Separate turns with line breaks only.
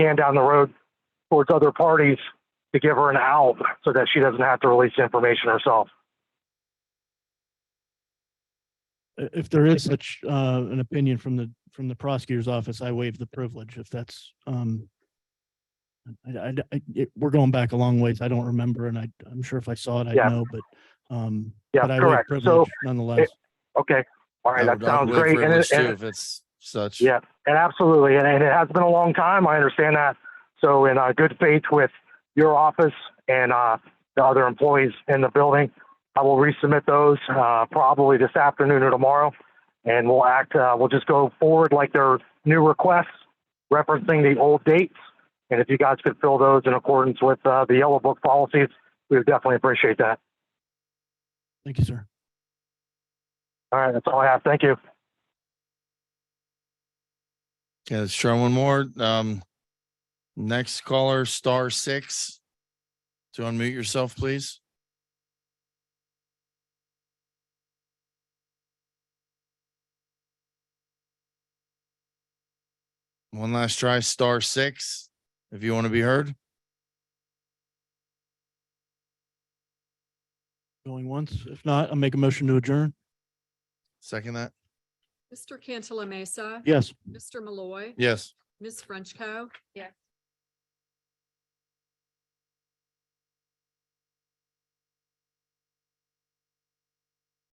can down the road towards other parties to give her an out so that she doesn't have to release the information herself.
i- if there is such uh an opinion from the from the prosecutor's office, I waive the privilege if that's um. I I I- it- we're going back a long ways. I don't remember and I I'm sure if I saw it, I'd
Yeah.
know, but um.
Yeah,
but I waive
correct. So,
privilege Nonetheless,
Okay. All right.
I
That
would- I would
sounds
wait
great.
for
And,
English
it,
too,
and,
If it's such.
Yeah. and absolutely. And, and it has been a long time. I understand that. So, in uh, good faith with your office and uh, the other employees in the building, I will resubmit those uh, probably this afternoon or tomorrow. And we'll act, uh, we'll just go forward like their new requests, referencing the old dates. And if you guys could fill those in accordance with uh, the yellow book policies, we would definitely appreciate that.
thank you, sir.
All right. That's all I have. Thank you.
Okay, let's try one more. Um, next caller, star six. To unmute yourself, please. One last try, star six, if you want to be heard.
Going once. If not, I'll make a motion to adjourn.
Second that.
Mr. Cantala Mesa.
Yes.
Mr. Malloy.
Yes.
Ms. Frenchco. Yes.